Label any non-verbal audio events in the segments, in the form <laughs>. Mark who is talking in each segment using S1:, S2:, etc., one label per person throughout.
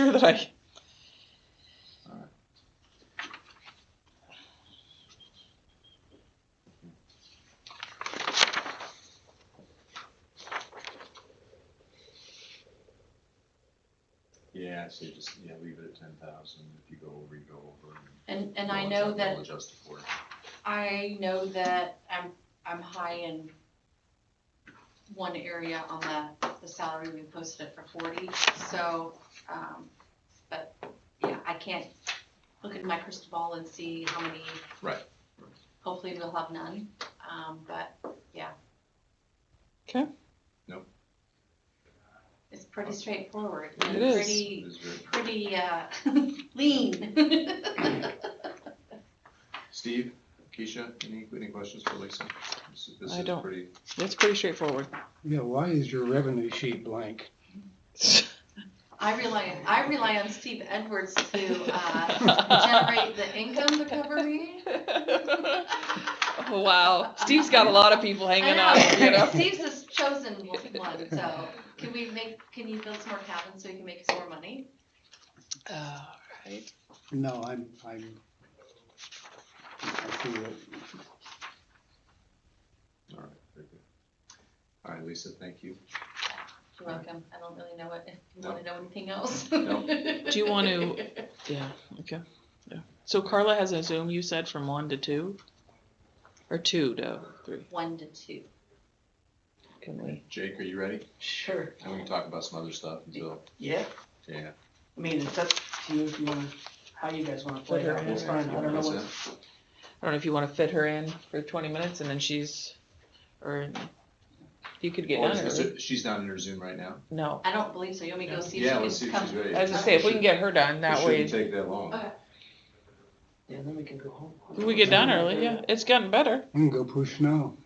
S1: <laughs> that I.
S2: Yeah, so you just, yeah, leave it at ten thousand, if you go over, you go over.
S3: And, and I
S2: we'll
S3: know
S2: adjust-
S3: that,
S2: We'll adjust it for it.
S3: I know that I'm, I'm high in one area on the, the salary, we posted it for forty, so, um, but, yeah, I can't look at my crystal ball and see how many.
S2: Right.
S3: Hopefully we'll have none, um, but, yeah.
S1: 'Kay.
S2: Nope.
S3: It's pretty straightforward.
S2: It
S3: and
S1: is.
S3: Pretty,
S2: It's very-
S3: pretty, uh, <laughs> lean. <laughs>
S2: Steve, Keisha, any, any questions for Lisa? This is- this
S1: I
S2: is
S1: don't.
S2: pretty-
S1: It's pretty straightforward.
S4: Yeah, why is your revenue sheet blank?
S3: I rely, I rely on Steve Edwards to, uh, generate the income to cover me.
S1: <laughs> wow, Steve's got a lot of people hanging out. You
S3: <laughs>
S1: know.
S3: Steve's has chosen one, so can we make, can you build some more cabins so you can make some more money?
S1: All right.
S4: No, I'm, I'm. I see it.
S2: All right, very good. All right, Lisa, thank you.
S3: You're welcome. I don't really know what, if you wanna know anything else.
S2: No.
S1: Do you want to- Yeah. Okay. Yeah. So Carla has a Zoom. You said from one to two, or two to three.
S3: <laughs> One to two.
S1: Can we?
S2: Jake, are you ready?
S5: Sure,
S2: And we can talk about some other stuff until,
S5: yeah,
S2: yeah.
S5: I mean, it's up to you if you wanna, how you guys wanna play it, it's fine, I don't know what.
S2: That's it?
S1: I don't know if you want to fit her in for 20 minutes and then she's, or you could get
S2: Or
S1: done.
S2: Oh, is
S1: early.
S2: this- She's not in her Zoom right now?
S1: No.
S3: I don't believe so. You want me to go see
S2: Yeah,
S3: if
S2: let's
S3: she
S2: see
S3: can
S2: if she's
S3: come?
S2: ready.
S1: I was gonna say, if we can get her done, that way
S2: It shouldn't take that long.
S3: Okay.
S5: Yeah, then we can go home.
S1: we get done early. Yeah, it's gotten better.
S4: I'm gonna go push snow.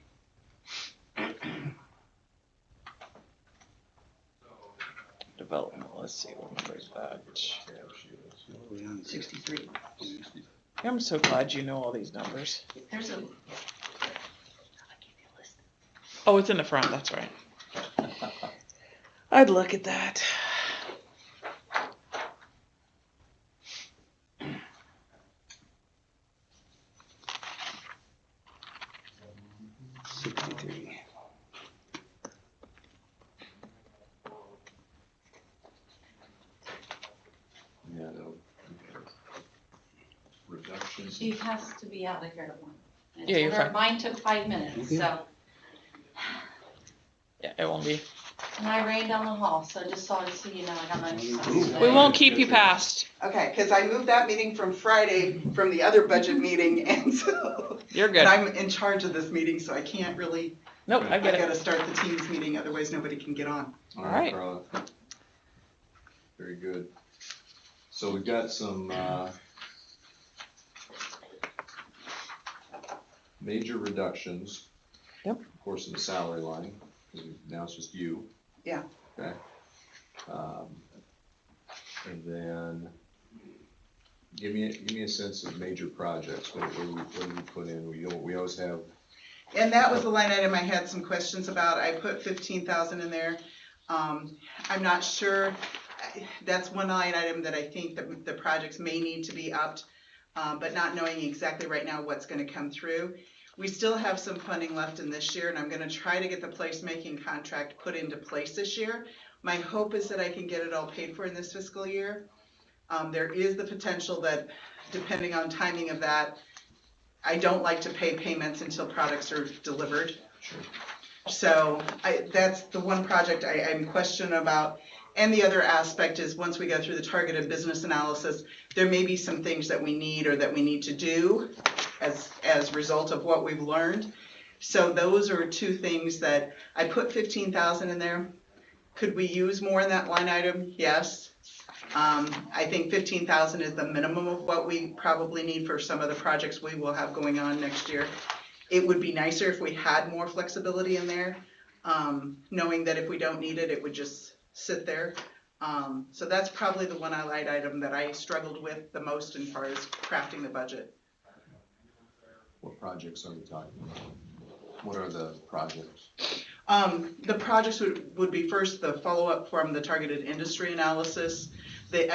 S1: Development, let's see, what number is that?
S2: Yeah, she is.
S5: Sixty-three.
S1: I'm so glad you know all these numbers.
S3: There's a.
S1: Oh, it's in the front, that's right. I'd look at that.
S4: Sixty-three.
S2: Yeah, no. okay. Reduction.
S3: She has to be out of here at one. I
S1: Yeah, you're
S3: told her
S1: fine.
S3: Mine took five minutes,
S4: Okay.
S3: so,
S1: Yeah, it won't be.
S3: and I ran down the hall, so I just saw, so you know, I got my exercise.
S4: Ooh.
S1: We
S3: today.
S1: won't keep you past.
S6: Okay, because I moved that meeting from Friday from the other budget meeting, <laughs> and so,
S1: You're
S6: and
S1: good.
S6: I'm in charge of this meeting, so I can't really,
S1: Nope, I
S6: I
S1: get it.
S6: gotta start the teams meeting, otherwise nobody can get on.
S2: All
S1: Alright.
S2: right, Carla. Very good. So we've got some, uh, major reductions.
S1: Yep.
S2: Of course, in the salary line, because now it's just you.
S6: Yeah.
S2: Okay. Um, And then, give me, a- give me a sense of major projects, what, what do we, what do we put in? We, al- we always have,
S6: And that was the line item I had some questions about. I put fifteen thousand in there. Um, I'm not sure, I- that's one line item that I think that the projects may need to be upped, um, but not knowing exactly right now what's gonna come through. We still have some funding left in this year, and I'm gonna try to get the placemaking contract put into place this year. My hope is that I can get it all paid for in this fiscal year. Um, there is the potential that, depending on timing of that, I don't like to pay payments until products are delivered. So I, that's the one project I, I'm questioning about. And the other aspect is, once we go through the targeted business analysis, there may be some things that we need or that we need to do as, as a result of what we've learned. So those are two things that, I put fifteen thousand in there. Could we use more in that line item? Yes. Um, I think fifteen thousand is the minimum of what we probably need for some of the projects we will have going on next year. It would be nicer if we had more flexibility in there, um, knowing that if we don't need it, it would just sit there. Um, so that's probably the one I light item that I struggled with the most in far as crafting the budget.
S2: what projects are we talking about? What are the projects?
S6: Um, the projects would, would be first the follow-up from the targeted industry analysis, the